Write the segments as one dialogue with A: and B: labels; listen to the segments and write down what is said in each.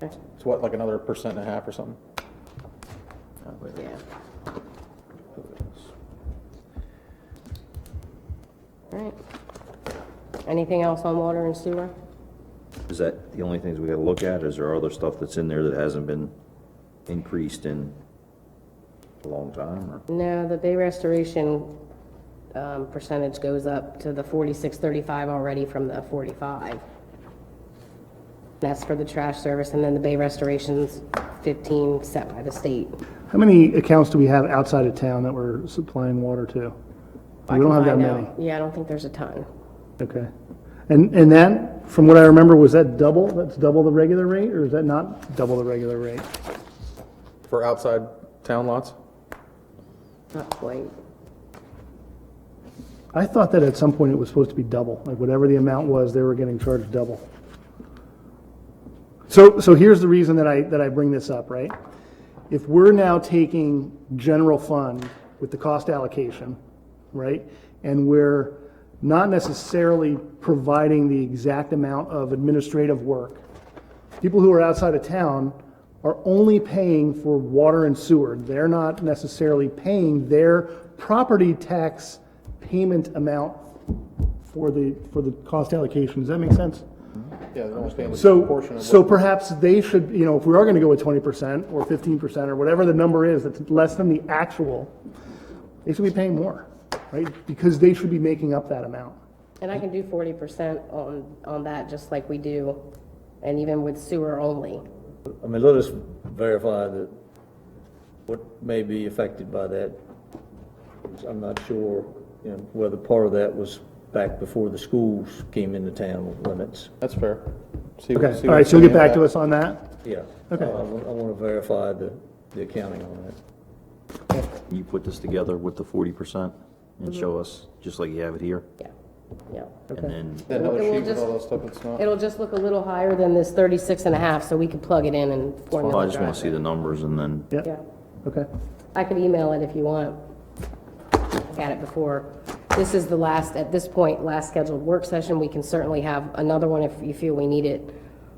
A: It's what, like another percent and a half or something?
B: Yeah. All right. Anything else on water and sewer?
C: Is that the only things we gotta look at? Is there other stuff that's in there that hasn't been increased in a long time or?
B: No, the bay restoration um, percentage goes up to the forty-six thirty-five already from the forty-five. That's for the trash service, and then the bay restoration's fifteen set by the state.
D: How many accounts do we have outside of town that we're supplying water to? We don't have that
B: I know.
D: many.
B: Yeah, I don't think there's a ton.
D: Okay. And, and that, from what I remember, was that double? That's double the regular rate, or is that not double the regular rate?
A: For outside town lots?
B: Not quite.
D: I thought that at some point it was supposed to be double, like whatever the amount was, they were getting charged double. So, so here's the reason that I, that I bring this up, right? If we're now taking general fund with the cost allocation, right? And we're not necessarily providing the exact amount of administrative work. People who are outside of town are only paying for water and sewer. They're not necessarily paying their property tax payment amount for the, for the cost allocation. Does that make sense?
A: Yeah, they're almost paying like a portion
D: So,
A: of
D: so
A: what.
D: perhaps they should, you know, if we are gonna go with twenty percent or fifteen percent or whatever the number is, that's less than the actual, they should be paying more, right? Because they should be making up that amount.
B: And I can do forty percent on, on that, just like we do, and even with sewer only.
E: I mean, let us verify that what may be affected by that. I'm not sure, you know, whether part of that was back before the schools came into town limits.
A: That's fair. See what-
D: Okay,
A: see
D: all right,
A: what's
D: so you'll get
A: in the
D: back to
A: impact.
D: us on that?
E: Yeah. Uh,
D: Okay.
E: I want to verify the, the accounting on that.
C: Can you put this together with the forty percent and show
B: Mm-hmm.
C: us, just like you have it here?
B: Yeah, yeah.
C: And then,
A: That other
B: It will
A: sheet with
B: just-
A: all that stuff, it's not.
B: It'll just look a little higher than this thirty-six and a half, so we could plug it in and
C: well, I
B: formula
C: just wanna see
B: drive
C: the numbers and then,
B: it. Yeah,
D: Yep, okay.
B: I could email it if you want. I Had it before. This is the last, at this point, last scheduled work session. We can certainly have another one if you feel we need it.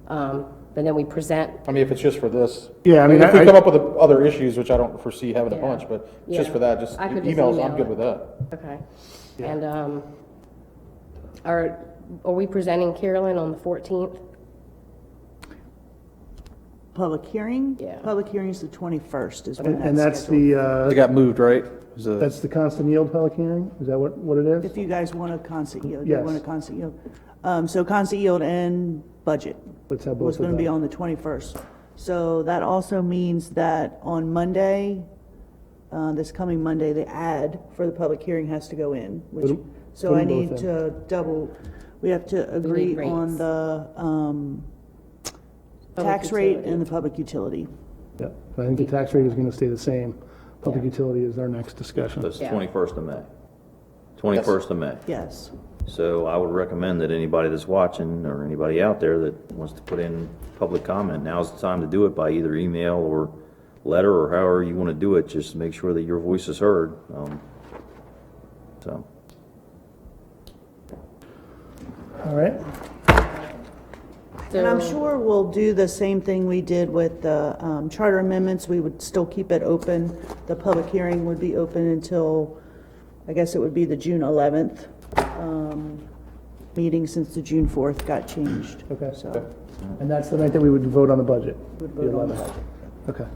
B: Um, but then we present,
A: I mean, if it's just for this.
D: Yeah, I mean,
A: If we
D: I-
A: come up with the other issues, which I don't foresee having a
B: Yeah.
A: bunch, but just
B: Yeah.
A: for that, just
B: I could just
A: emails,
B: email
A: I'm
B: it.
A: good with that.
B: okay. And, um, are, are we presenting Carolyn on the fourteenth?
F: Public hearing?
B: Yeah.
F: Public hearing's the 21st is when
D: And and that's
F: that's scheduled.
D: the, uh,
A: It got moved, right? It was a-
D: that's the constant yield public hearing? Is that what, what it is?
F: If you guys want a constant yield, you
D: Yes.
F: want a constant yield. Um, So constant yield and budget
D: Let's have both
F: was
D: of
F: going to be
D: them.
F: on the 21st. So that also means that on Monday, uh, this coming Monday, the ad for the public hearing has to go in. which-
D: Put 'em-
F: So
D: put 'em
F: I need
D: both in.
F: to double, we have to agree
B: rates.
F: on the um,
B: Public
F: tax rate
B: utility.
F: and the public utility.
D: Yeah, I think the tax rate is gonna stay the same. Public utility is our next discussion.
C: that's the
B: Yeah.
C: twenty-first of May. Twenty-first of May.
F: Yes.
C: So I would recommend that anybody that's watching or anybody out there that wants to put in public comment, now's the time to do it by either email or letter or however you want to do it, just to make sure that your voice is heard. Um, So,
D: All right?
F: And I'm sure we'll do the same thing we did with the um, charter amendments. We would still keep it open. The public hearing would be open until, I guess it would be the June 11th um, meeting since the June 4th got changed.
D: Okay.
F: So
D: And that's the night that we would vote on the budget?
F: we'd vote on that.
D: Okay.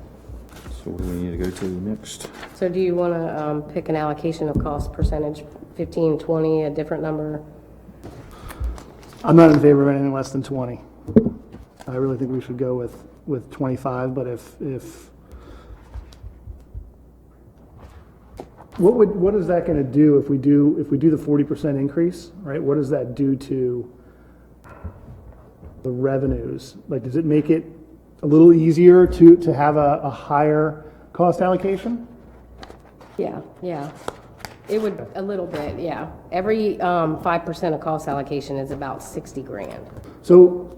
C: so what do we need to go to next?
B: So do you want to pick an allocation of cost percentage, 15, 20, a different number?
D: I'm not in favor of anything less than 20. I really think we should go with, with 25, but if, if, what would, what is that going to do if we do, if we do the 40% increase, right? What does that do to the revenues? Like, does it make it a little easier to, to have a, a higher cost allocation?
B: Yeah, yeah. It would, a little bit, yeah. Every um, 5% of cost allocation is about 60 grand.
D: So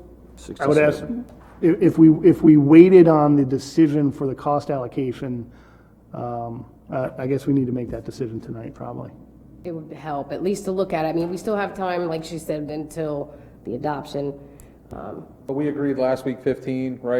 D: I would
C: 67.
D: ask, if, if we, if we waited on the decision for the cost allocation, um, uh, I guess we need to make that decision tonight, probably.
B: It would help, at least to look at it. I mean, we still have time, like she said, until the adoption. Um,
A: But we agreed last week fifteen, right?